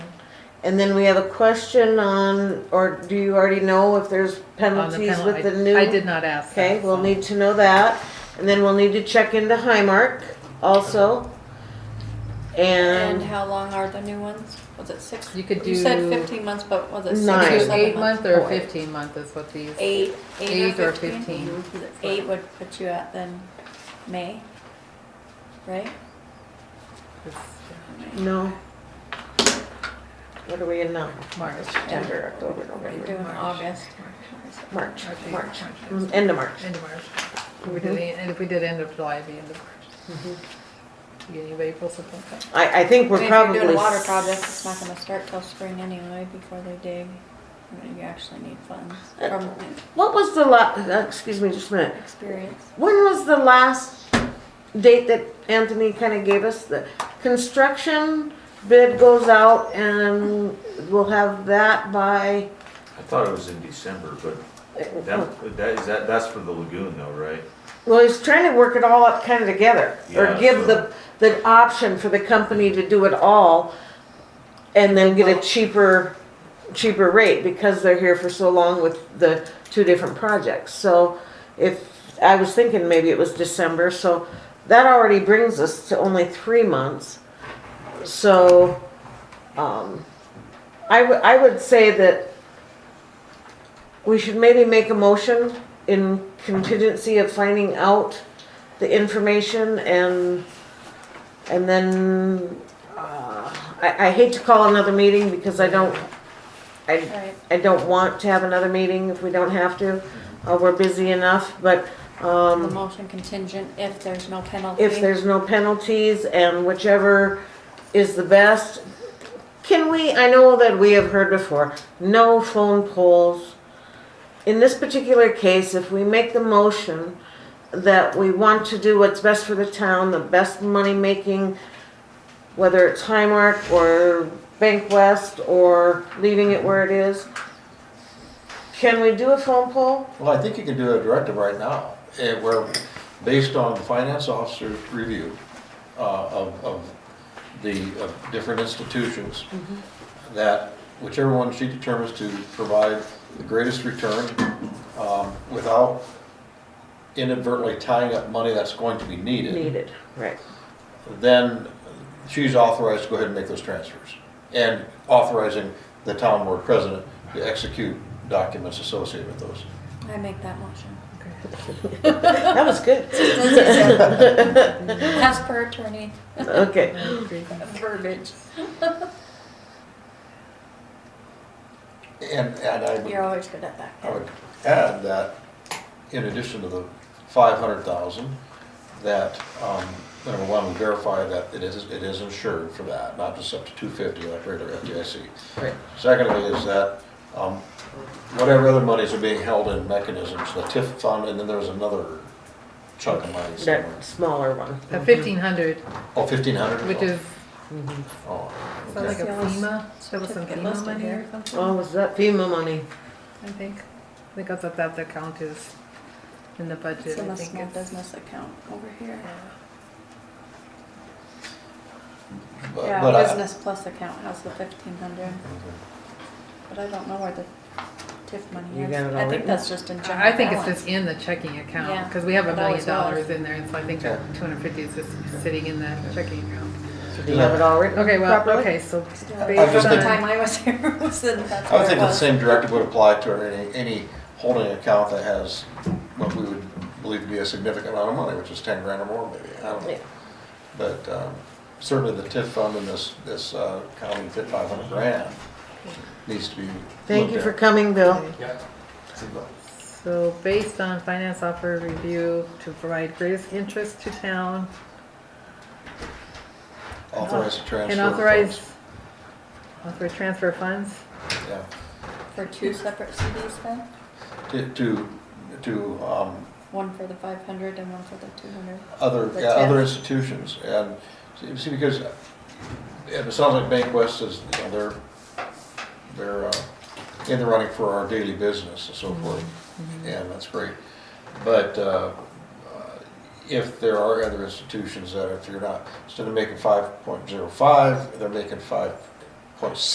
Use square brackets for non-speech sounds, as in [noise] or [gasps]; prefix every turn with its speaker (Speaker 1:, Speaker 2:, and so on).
Speaker 1: And then we have a question on, or do you already know if there's
Speaker 2: on the
Speaker 1: penalties
Speaker 2: penalty.
Speaker 1: Oh, with the
Speaker 2: I-
Speaker 1: new?
Speaker 2: I did not ask that.
Speaker 1: Okay, we'll
Speaker 2: so.
Speaker 1: need to know that, and then we'll need to check into Highmark also.
Speaker 3: And
Speaker 1: And
Speaker 3: how long are the new ones? Was it six?
Speaker 2: You could
Speaker 3: said
Speaker 2: do-
Speaker 3: fifteen months, but was it six
Speaker 1: Nine.
Speaker 3: or
Speaker 2: Two
Speaker 3: seven
Speaker 2: eight
Speaker 3: months?
Speaker 2: month or
Speaker 1: Oh, wait.
Speaker 2: fifteen month is what these.
Speaker 3: Eight, eight
Speaker 2: Eight
Speaker 3: or
Speaker 2: or
Speaker 3: fifteen?
Speaker 2: 15.
Speaker 3: Because Eight would put you at then May, right?
Speaker 2: is
Speaker 1: no. What are we in now?
Speaker 2: March.
Speaker 1: September, October,
Speaker 3: You're
Speaker 1: November,
Speaker 3: doing
Speaker 2: March.
Speaker 3: August.
Speaker 1: March,
Speaker 2: March, April,
Speaker 1: March,
Speaker 2: March,
Speaker 1: Mm, end of March.
Speaker 2: End of March. If
Speaker 3: Mm-hmm.
Speaker 2: we did, the- and if we did end of July, it'd be end of March. Beginning of April, something like
Speaker 3: [gasps]
Speaker 2: that.
Speaker 1: I, I think
Speaker 3: I
Speaker 1: we're
Speaker 3: mean,
Speaker 1: probably.
Speaker 3: If you're doing a water
Speaker 1: s-
Speaker 3: project, it's not gonna start till spring anyway, before they dig. I mean, You actually need funds from
Speaker 1: What was the la, uh, excuse me just a minute,
Speaker 3: experience.
Speaker 1: when was the last date that Anthony kinda gave us? The construction bid goes out and we'll have that by.
Speaker 4: I thought it was in December, but that, that is, that, that's for the lagoon though, right?
Speaker 1: Well, he's trying to work it all up kind of together, or
Speaker 4: Yeah,
Speaker 1: give the, the option for the company to do it all and then get a cheaper, cheaper rate because they're here for so long with the two different projects. So if, I was thinking maybe it was December, so that already brings us to only three months. So, um, I, w- I would say that we should maybe make a motion in contingency of finding out the information and, and then, uh, I, I hate to call another meeting because I don't, I,
Speaker 3: Right,
Speaker 1: I don't want to have another meeting if we don't have to. Uh, we're busy enough, but, um.
Speaker 3: the motion contingent if there's no penalty.
Speaker 1: If there's no penalties and whichever is the best. Can we, I know that we have heard before, no phone polls. In this particular case, if we make the motion that we want to do what's best for the town, the best money-making, whether it's Highmark or Bank West or leaving it where it is, can we do a phone poll?
Speaker 5: Well, I think you can do a directive right now, eh, where, based on the finance officer's review uh, of, of the, of different institutions, that whichever one she determines to provide the greatest return, um, without inadvertently tying up money that's going to be needed,
Speaker 1: Needed, right.
Speaker 5: then she's authorized to go ahead and make those transfers. And authorizing the town board president to execute documents associated with those.
Speaker 3: I make that motion.
Speaker 1: That was good. [laughs]
Speaker 3: As per attorney
Speaker 1: Okay.
Speaker 2: Okay.
Speaker 3: verbiage.
Speaker 5: And, and I would
Speaker 3: You're always good at that.
Speaker 5: I would add that in addition to the five hundred thousand, that, um, number one, we verify that it is, it is insured for that, not just up to two fifty like regular FDIC.
Speaker 1: Right.
Speaker 5: Secondly is that, um, whatever other monies are being held in mechanisms, the TIF fund, and then there's another chunk of money somewhere.
Speaker 1: That smaller one.
Speaker 3: Mm-hmm.
Speaker 1: Mm-hmm.
Speaker 2: A fifteen hundred,
Speaker 5: Oh, fifteen hundred?
Speaker 2: which is,
Speaker 5: Oh,
Speaker 2: sounds like
Speaker 5: okay.
Speaker 2: a
Speaker 3: Yeah, let's-
Speaker 2: FEMA, there was some
Speaker 3: certificate
Speaker 2: FEMA
Speaker 3: listed
Speaker 2: money
Speaker 3: here.
Speaker 2: or something,
Speaker 1: Oh, was that FEMA money?
Speaker 2: I think. I think that's what that account is in the budget,
Speaker 3: It's in
Speaker 2: I
Speaker 3: a
Speaker 2: think
Speaker 3: small
Speaker 2: it's.
Speaker 3: business account over here.
Speaker 5: But-
Speaker 3: Yeah,
Speaker 5: but I- Mm-hmm.
Speaker 3: business plus account has the fifteen hundred,
Speaker 5: Okay.
Speaker 3: but I don't know where the TIF money
Speaker 1: You
Speaker 3: is.
Speaker 1: got it
Speaker 3: I
Speaker 1: all
Speaker 3: think
Speaker 1: written?
Speaker 3: that's just in general.
Speaker 2: I think it's
Speaker 3: balance.
Speaker 2: just in the checking account,
Speaker 3: Yeah,
Speaker 2: because we have a
Speaker 3: it always
Speaker 2: million
Speaker 3: was.
Speaker 2: dollars in there, and so I think that
Speaker 5: Okay.
Speaker 2: two hundred fifty is just sitting in the checking account.
Speaker 1: So do you have it all written?
Speaker 2: Okay, well,
Speaker 1: properly?
Speaker 2: okay, so
Speaker 3: Yeah,
Speaker 5: I was
Speaker 2: based
Speaker 5: just
Speaker 3: From the
Speaker 5: thinking-
Speaker 2: on,
Speaker 3: time I was [laughs] here, it was in, that's
Speaker 5: I would
Speaker 3: where it
Speaker 5: think the
Speaker 3: was.
Speaker 5: same directive would apply to any, any holding account that has what we would believe to be a significant amount of money, which is ten grand or more maybe, I don't
Speaker 1: Yeah.
Speaker 5: know. But, um, certainly the TIF fund in this, this, uh, county fit five hundred grand needs to be
Speaker 1: Thank
Speaker 5: looked
Speaker 1: you
Speaker 5: at.
Speaker 1: for coming, Bill.
Speaker 2: so based on finance offer review to provide greatest interest to town
Speaker 5: Authorize the transfer.
Speaker 2: and
Speaker 5: of
Speaker 2: authorize, authorize transfer of funds?
Speaker 5: funds. Yeah,
Speaker 3: For two separate CDs then?
Speaker 5: to, to, to, um,
Speaker 3: One for the five hundred and one for the two hundred.
Speaker 5: other,
Speaker 3: The
Speaker 5: yeah, other
Speaker 3: TIF.
Speaker 5: institutions, and, see- see, because, uh, and it sounds like Bank West is, you know, they're, they're uh, in the running for our daily business and so forth, and that's great. But uh, uh, if there are other institutions that if you're not, instead of making five point zero five, they're making five point six.